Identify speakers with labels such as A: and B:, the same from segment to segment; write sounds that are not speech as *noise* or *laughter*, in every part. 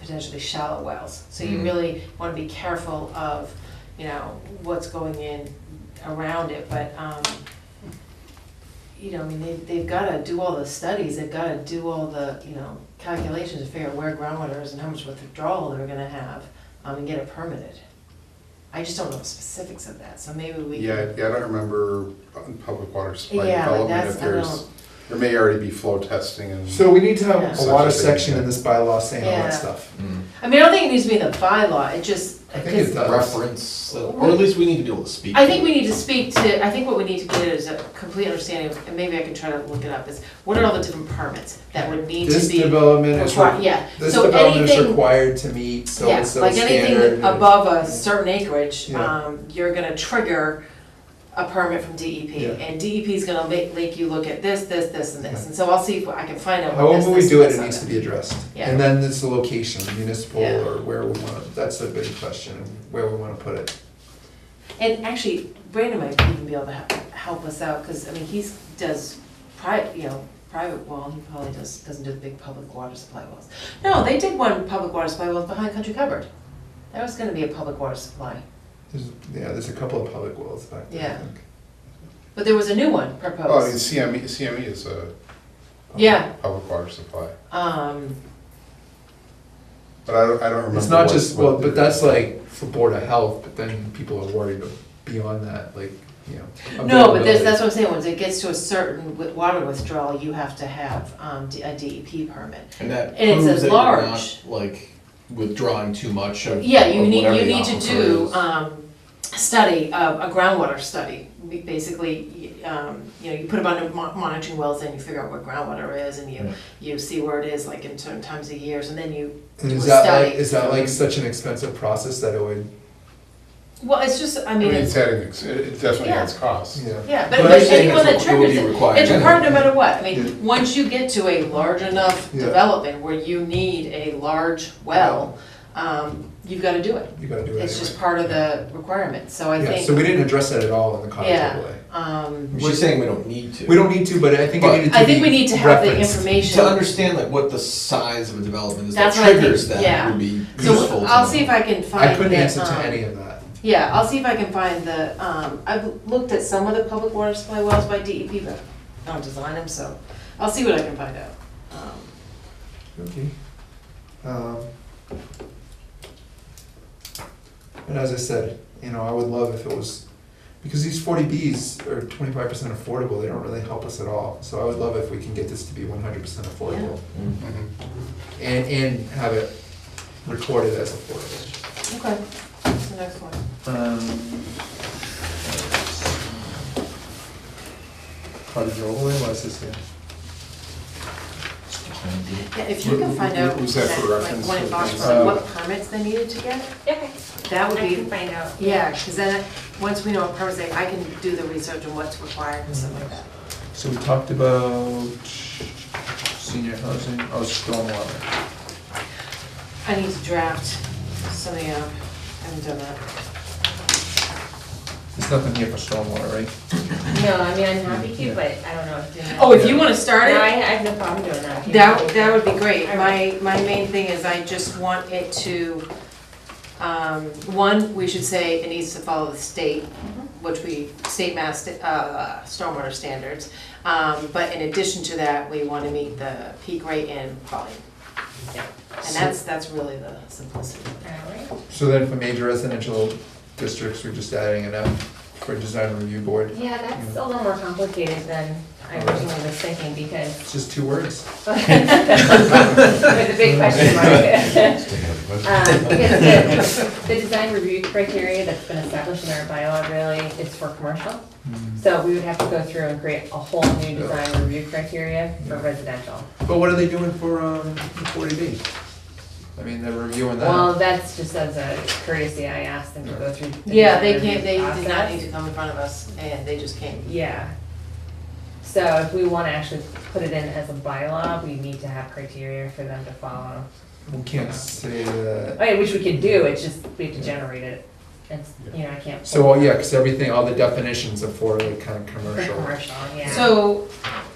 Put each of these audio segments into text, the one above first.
A: potentially shallow wells. So you
B: Mm.
A: really want to be careful of, you know, what's going in around it, but, um, you know, I mean, they, they've got to do all the studies, they've got to do all the, you know, calculations to figure out where groundwater is and how much withdrawal they're gonna have, um, and get it permitted. I just don't know the specifics of that, so maybe we can.
B: Yeah, yeah, I don't remember on public water supply
A: Yeah, like
B: development
A: that's-
B: if
A: I
B: there's,
A: don't-
B: there may already be flow testing and.
C: So we need to have a
B: Yeah.
C: water section in this bylaw saying all
A: Yeah.
C: that stuff.
A: I mean, I don't think it needs to be in the bylaw, it just.
C: I think it does.
D: reference, or at least we need to be able to speak.
A: I think we need to speak to, I think what we need to get is a complete understanding, of- and maybe I can try to look it up, is what are all the different permits that would need to
C: This
A: be.
C: development is,
A: required?
C: re-
A: Yeah,
C: this
A: so
C: development is
A: anything,
C: required to meet so
A: yeah,
C: and so
A: like
C: standard.
A: anything above a certain acreage,
C: Yeah.
A: um, you're gonna trigger a permit from
C: Yeah.
A: DEP. And DEP's gonna make, make you look at this, this, this, and this, and so I'll see if I can find out what this,
C: However we
A: this,
C: do it,
A: this,
C: it
A: and
C: needs to
A: that.
C: be addressed.
A: Yeah.
C: And then it's the location, municipal
A: Yeah.
C: or where we want, to that's a good question, where we want to put it.
A: And actually, Brandon might even be able to he- help us out, because, I mean, he's, does private, you know, private well, he probably does, doesn't do the big public water supply wells. No, they did one public water supply well behind Country Cupboard. That was gonna be a public water supply,
C: There's, yeah, there's a couple of public wells back
A: Yeah.
C: there, I think.
A: but there was a new one
B: Oh, I mean,
A: proposed.
B: CME, CME E is a.
A: Yeah.
B: Public water supply,
A: Um,
B: but I don't, I don't remember.
C: It's not
B: what-
C: just,
B: what
C: well, but
B: the-
C: that's like for Board of Health, but then people are worried beyond that, like, you
A: no,
C: know.
A: but that's,
C: availability.
A: that's what I'm saying, once it gets to a certain wi- water withdrawal, you have to have, um, D- a DEP permit.
D: And that
A: And it
D: proves
A: says
D: that you're not,
A: large.
D: like, withdrawing too much of.
A: Yeah, you
D: of
A: need,
D: whatever
A: you
D: the
A: need to
D: aquifer
A: do,
D: is.
A: um, a study, uh, a a groundwater study. We Basically, y- um, you know, you put a bunch of mon- monitoring wells in, you figure out what groundwater is, and you,
D: Yeah.
A: you see where it is, like in certain times of years, and then you,
C: And
A: do
C: is
A: a
C: that like,
A: study.
C: is that like such an expensive process that it would,
A: well, it's just, I
B: I mean,
A: mean, it's,
B: it's adding, ex- it it definitely
A: Yeah.
B: adds costs.
C: yeah.
A: yeah, but
D: But
A: but
D: I'm saying
A: anyone that
D: that's what will
A: triggers
D: be
A: it,
D: required
A: it's required no matter what. I
C: Yeah.
A: mean, once you get to a large enough
C: Yeah.
A: development where you need a large well, um, you've gotta do it.
C: You gotta do it
A: It's just
C: anyway.
A: part of the requirement, so I
C: Yeah, so
A: think,
C: we didn't address that at all in the cottage
A: Yeah.
C: overlay.
A: um,
D: She's saying we don't need to.
C: We don't need to, but I think it
D: But-
C: needed to be
A: I think we need to have the
C: referenced.
A: information.
D: To understand like what the size of a development is that
A: That's what I think,
D: triggers that
A: yeah.
D: would be useful
A: So
D: to
A: I'll see if
D: know.
A: I can find.
C: I couldn't
A: the,
C: answer to
A: um,
C: any of that.
A: Yeah, I'll see if I can find the, um, I've looked at some of the public water supply wells by DEP, but I don't design them, so I'll see what I can find out. Um,
C: Okay. Um, And as I said, you know, I would love if it was, because these forty Bs are twenty-five percent affordable, they don't really help us at all. So I would love if we can get this to be one hundred percent affordable
D: Mm.
B: Mhm.
C: and, and have it recorded as affordable.
A: Okay, what's the next one?
C: Um, Cottage overlay license, yeah.
A: Yeah, if you can find out,
B: Was that for
A: like,
B: reference?
A: when it box,
C: Uh,
A: like, what permits they needed to get,
E: Okay,
A: that would
E: I can
A: be,
E: find out.
A: yeah, because then, once we know what permits they, I can do the research on what's required and stuff like that.
C: So we talked about senior housing, oh, stormwater.
A: I need to draft something up, I haven't done that.
C: There's nothing here for stormwater, right?
E: No, I mean, I'm happy to, but I don't know if doing that.
A: Oh, if you wanna
E: No,
A: start it?
E: I, I have no problem doing that.
A: That, that would be great. My, my main thing is I just want it to, um, one, we should say it needs to follow the state, which we, state mass, uh, stormwater standards. Um, but in addition to that, we want to meet the peak rate and volume. And that's, that's really the simplicity.
E: Alright,
C: So then for major residential districts, we're just adding an F for design review board.
E: yeah, that's a little more complicated than I originally was thinking because *laughs*
C: It's just two words.
E: with a big question mark. Um, Because the- the design review criteria that's been established in our bylaw really is for commercial. So we would have to go through and create a whole new design review criteria for residential.
C: But what are they doing for, um, the forty B? I mean, they're reviewing
E: Well,
C: that.
E: that's just as a courtesy, I asked them to go through. the
A: Yeah, they
E: design
A: can't, they
E: review
A: did not
E: process.
A: need to come in front of us and they just came.
E: Yeah. So if we wanna actually put it in as a bylaw, we need to have criteria for them to follow. Oh,
C: We can't say that.
E: I mean, which we could do, it's just we have to generate it. it's, you know, I can't.
C: So, oh, yeah, because everything, all the definitions of for like kind of
E: For
C: commercial.
E: commercial, yeah.
A: So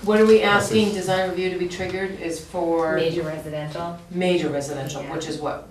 A: what are we asking design review to be triggered is for
E: Major residential.
A: major residential,
E: Yeah.
A: which is what,